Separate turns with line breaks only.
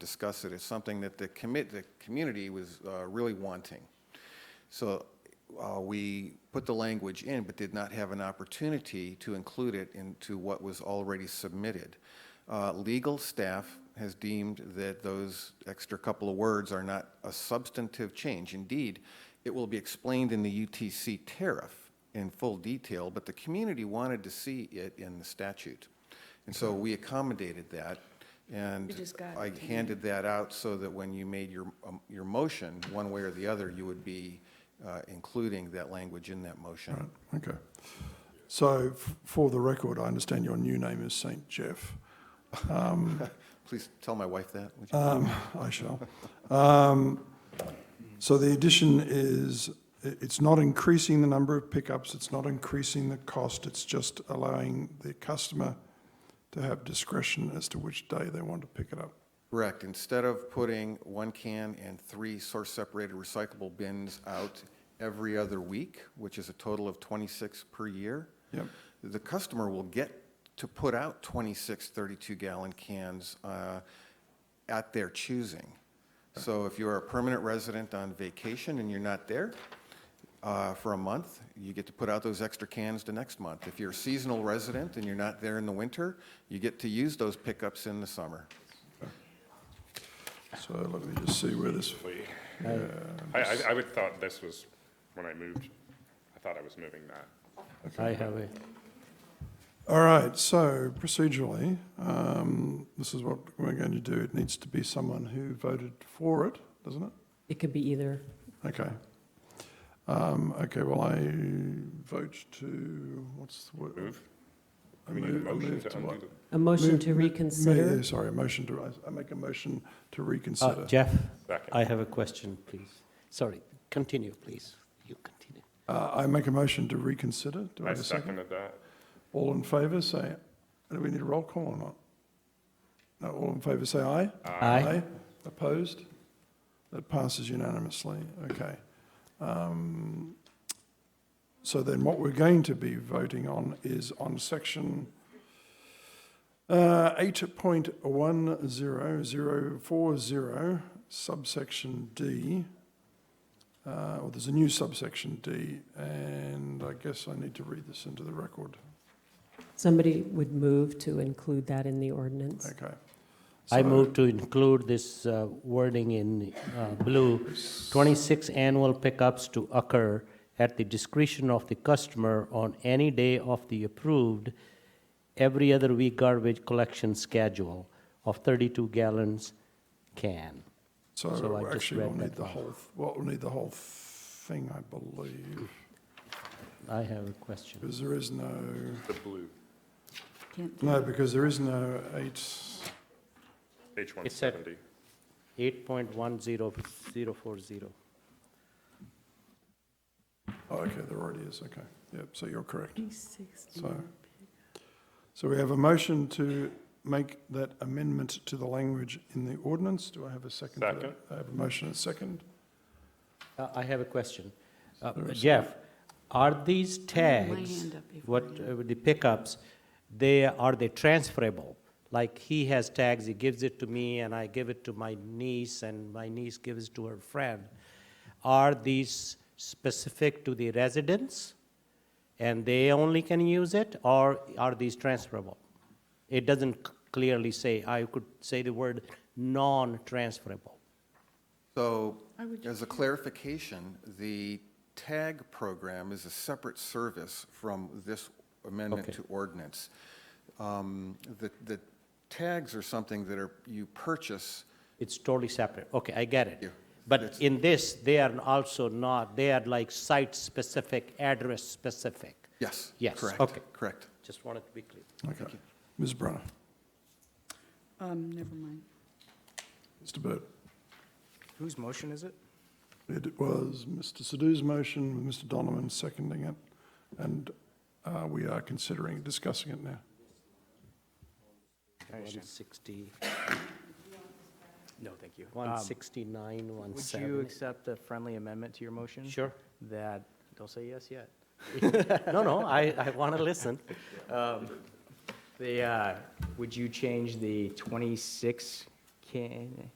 discuss it. It's something that the commit, the community was uh, really wanting. So uh, we put the language in, but did not have an opportunity to include it into what was already submitted. Uh, Legal staff has deemed that those extra couple of words are not a substantive change. Indeed, it will be explained in the UTC tariff in full detail, but the community wanted to see it in the statute. And so we accommodated that, and
You just got it
I
today.
handed that out so that when you made your, um, your motion, one way or the other, you would be uh, including that language in that motion.
Okay. So f- for the record, I understand your new name is St. Jeff.
Please tell my wife that, would you?
Um, I shall. Um, so the addition is, i- it's not increasing the number of pickups, it's not increasing the cost, it's just allowing the customer to have discretion as to which day they want to pick it up.
Correct. Instead of putting one can and three source-separated recyclable bins out every other week, which is a total of 26 per year,
Yep.
the customer will get to put out 26 32-gallon cans uh, at their choosing. So if you're a permanent resident on vacation and you're not there uh, for a month, you get to put out those extra cans the next month. If you're a seasonal resident and you're not there in the winter, you get to use those pickups in the summer.
So let me just see where this,
I, I, I would thought this was, when I moved, I thought I was moving that.
I have it.
all right, so procedurally, um, this is what we're going to do. It needs to be someone who voted for it, doesn't it?
It could be either.
Okay. Um, okay, well, I vote to, what's the word?
Move?
I
We need a
move- I
motion
move
to
to what?
undo the.
A motion
Move-
to
mo- ma-
reconsider.
Sorry, a motion to, I- I make a motion to
Uh,
reconsider.
Jeff,
Second.
I have a question, please. Sorry, continue, please. You continue.
Uh, I make a motion to reconsider. Do I
I
have a second?
seconded that.
All in favor, say, do we need a roll call or not? No, all in favor, say aye.
Aye.
Opposed? That passes unanimously. Okay. Um, So then what we're going to be voting on is on section uh, 8.10040 subsection D. Uh, Well, there's a new subsection D, and I guess I need to read this into the record.
Somebody would move to include that in the ordinance.
Okay.
I
So-
move to include this uh, wording in uh, blue, 26 annual pickups to occur at the discretion of the customer on any day of the approved every other week garbage collection schedule of 32 gallons can. So I
So
just
actually, we'll
read
need
that
the
one.
whole, well, we'll need the whole thing, I believe,
I have a question.
because there is no,
The blue,
no, because there is no eight,
H one
It's at-
seventy.
8.10040.
oh, okay, there already is, okay. Yep, so you're correct. So, so we have a motion to make that amendment to the language in the ordinance. Do I have a second? for that?
Second.
I have a motion and a second.
Uh, I have a question. Uh,
Sorry,
Jeff, are these
my
tags,
hand up before
what, uh, the pickups, they, are they transferable? Like, he has tags, he gives it to me, and I give it to my niece, and my niece gives it to her friend. Are these specific to the residents, and they only can use it, or are these transferable? It doesn't c- clearly say, I could say the word non-transferable.
So, as a clarification, the tag program is a separate service from this amendment
Okay.
to ordinance. Um, The, the tags are something that are, you purchase,
It's totally separate. Okay, I get
Yeah,
it. But
that's-
in this, they are also not, they are like site-specific, address-specific.
yes.
Yes,
correct,
okay.
Correct.
Just wanted to be clear.
Okay. Ms. Brunner,
Um, never mind.
Mr. Burt.
Whose motion is it?
It was Mr. Sadoo's motion with Mr. Donovan seconding it, and uh, we are considering, discussing it now.
160,
No, thank you. Um,
169,
Would you
170.
accept a friendly amendment to your motion?
Sure.
That, don't say yes yet.
No, no, I, I want to listen.
The, uh, would you change the 26 can,